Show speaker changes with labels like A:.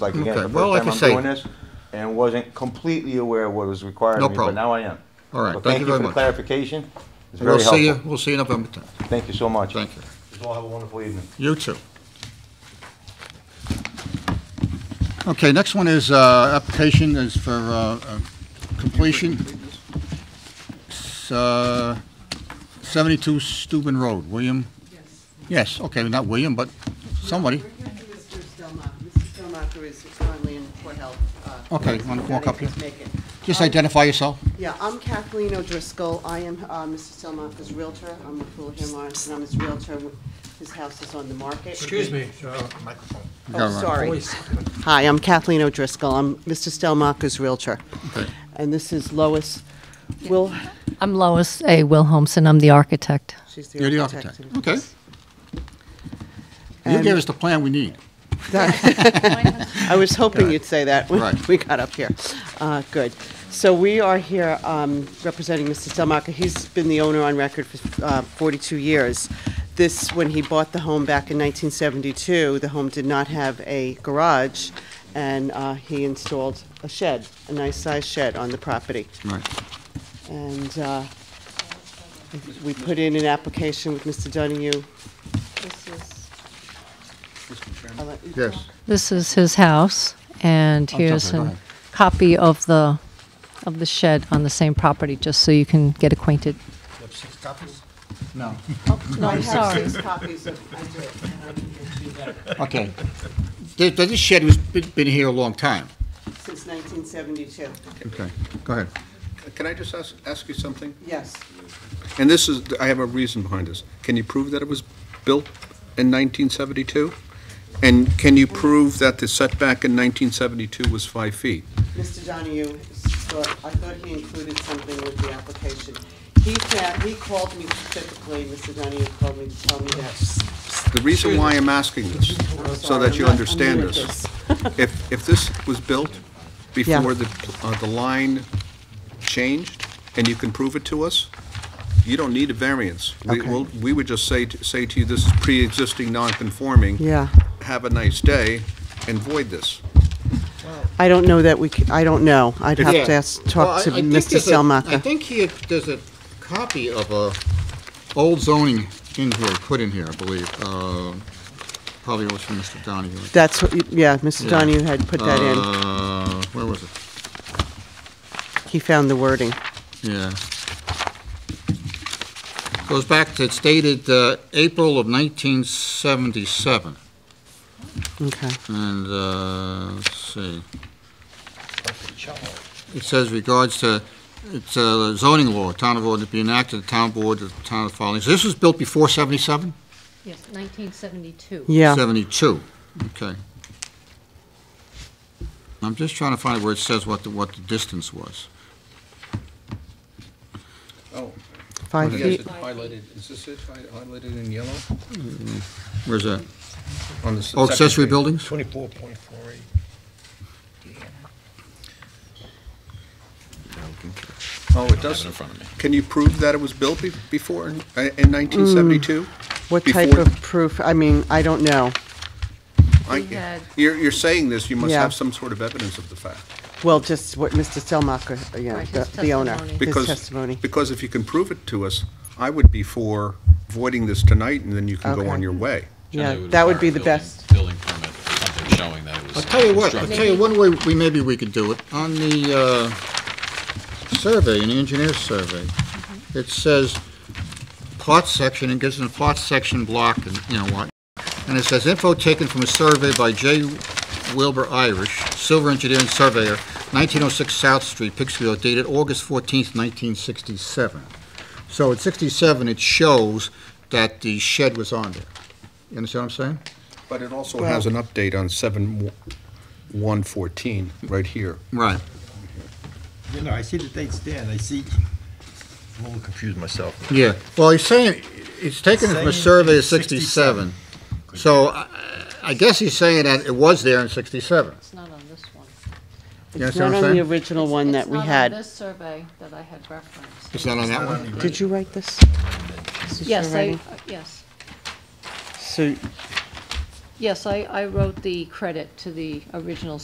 A: like again,
B: Okay,
A: the
B: well, like
A: first
B: I
A: time I'm
B: say-
A: doing this, and wasn't completely aware of what was required
B: No
A: of me, but
B: problem.
A: now I am.
B: All right,
A: But
B: thank you very
A: for the
B: much.
A: clarification. It's
B: We'll
A: very
B: see you,
A: helpful.
B: we'll see you November 10th.
A: Thank you so much.
B: Thank you.
A: You all have a wonderful evening.
B: You too. Okay, next one is, uh, application is for uh, uh, completion. S- uh, 72 Steuben Road, William?
C: Yes.
B: Yes, okay, not William, but somebody.
C: We're here for Mr. Stelmacher. Mr. Stelmacher is currently in Port Health. uh,
B: Okay, wanna walk up here?
C: he's making.
B: Just identify yourself.
C: Yeah, I'm Kathleen O'Driscoll. I am uh, Mr. Stelmacher's realtor. I'm with Fuller Hill Lawrence, and I'm his realtor. His house is on the market.
D: Excuse me, uh, microphone.
B: You got it
C: Oh,
B: right.
C: sorry.
D: Voice.
C: Hi, I'm Kathleen O'Driscoll. I'm Mr. Stelmacher's realtor.
B: Okay.
C: And this is Lois Will,
E: I'm Lois A. Wilhelmson. I'm the architect.
C: she's the
B: You're the
C: architect.
B: architect, okay. You gave us the plan we need.
C: I was hoping you'd say that when
B: Right.
C: we got up here. Uh, Good. So we are here um, representing Mr. Stelmacher. He's been the owner on record for uh, 42 years. This, when he bought the home back in 1972, the home did not have a garage, and uh, he installed a shed, a nice-sized shed on the property.
B: Right.
C: And uh, we put in an application with Mr. Donahue. This is- I'll let you
B: Yes.
C: talk.
E: This is his house, and
C: Oh,
B: I'm sorry,
E: here's
B: go
E: a
B: ahead.
E: copy of the of the shed on the same property, just so you can get acquainted.
D: You have six copies?
B: No.
C: No, I
E: Oh, I'm
C: have
E: sorry.
C: six copies of, I did, I did,
B: Okay. Th- th- This shed was, been been here a long time.
C: since 1972,
B: Okay, go ahead.
F: Can I just ask, ask you something?
C: yes.
F: And this is, I have a reason behind this. Can you prove that it was built in 1972? And can you prove that the setback in 1972 was five feet?
C: Mr. Donahue, thought- I thought he included something with the application. He said, he called me specifically, Mr. Donahue called me to tell me that.
F: The reason why I'm asking this,
C: I'm
F: so
C: sorry,
F: that you
C: I'm not- I'm new
F: understand
C: at
F: this. If, if this was built before the, uh, the line changed, and you can prove it to us, you don't need a variance. We,
C: Okay.
F: will we would just say, to- say to you, this is pre-existing non-conforming.
C: Yeah.
F: Have a nice day, and void this.
C: I don't know that we, c- I don't know. I'd have
B: Yeah.
C: to ask,
B: Well, I-
C: talk to
B: I think
C: Mr.
B: there's a- I
C: Selmacher.
B: think he, there's a copy of a old zoning in here, put in here, I believe. Uh, Probably was from Mr. Donahue.
C: That's, what you- yeah, Mr.
B: Yeah.
C: Donahue had put that in.
B: Uh, Where was it?
C: He found the wording.
B: Yeah. Goes back to, it's dated uh, April of 1977.
C: Okay.
B: And, uh, let's see,
D: Cello.
B: it says regards to, it's uh, zoning law, town of order to be enacted, the town board, of the town of filings. This was built before 77?
E: Yes, 1972.
C: Yeah,
B: 72, okay. I'm just trying to find where it says what the, what the distance was.
F: Oh,
C: five
F: yes,
C: feet.
F: it's highlighted, is this it, Hi- highlighted in yellow?
B: Where's that?
F: On the s-
B: Oh,
F: second
B: accessory
F: page.
B: buildings?
D: Twenty-four point four eight.
F: Oh, it does. Can you prove that it was built be- before, in uh, in 1972?
C: What type
F: before-
C: of proof? I mean, I don't know.
F: I-
E: We had-
F: You're, you're saying this, you must
C: Yeah.
F: have some sort of evidence of the fact.
C: Well, just what Mr. Stelmacher, uh, yeah,
E: Right,
C: the
E: his
C: the owner,
E: testimony.
C: his
F: Because-
C: testimony.
F: Because if you can prove it to us, I would be for voiding this tonight, and then you can go
C: Okay.
F: on your way.
C: Yeah,
G: Generally, it
C: that would be
G: require
C: the
G: a building-
C: best.
G: Building permit, or something showing that it
B: I'll
G: was.
B: tell you what, I'll
G: constructed.
B: tell you one way, we, maybe we could do it. On the, uh, survey, in the engineer's survey, it says plot section, and gives them a plot section block and, you know what. And it says info taken from a survey by J. Wilbur Irish, Silver Engineering Surveyor, 1906 South Street, Pittsfield, dated August 14th, 1967. So at 67, it shows that the shed was on there. You understand what I'm saying?
F: But it also has an update on 7/114, right here.
B: Right.
D: You know, I see the dates there, and I see, I'm a little confused myself.
B: Yeah, well, he's saying, he's taken it from a
D: Saying
B: survey of
D: it's
B: 67. So I- I guess he's saying that it was there in 67.
E: It's not on this one.
B: You
C: It's
B: understand what
C: not
B: I'm
C: on the
B: saying?
C: original one that we had.
E: this survey that I had referenced.
B: It's not on that one?
C: Did you write this? This is your
E: uh, Yes, I,
C: writing.
E: yes.
C: So
E: Yes, I, I wrote the credit to the original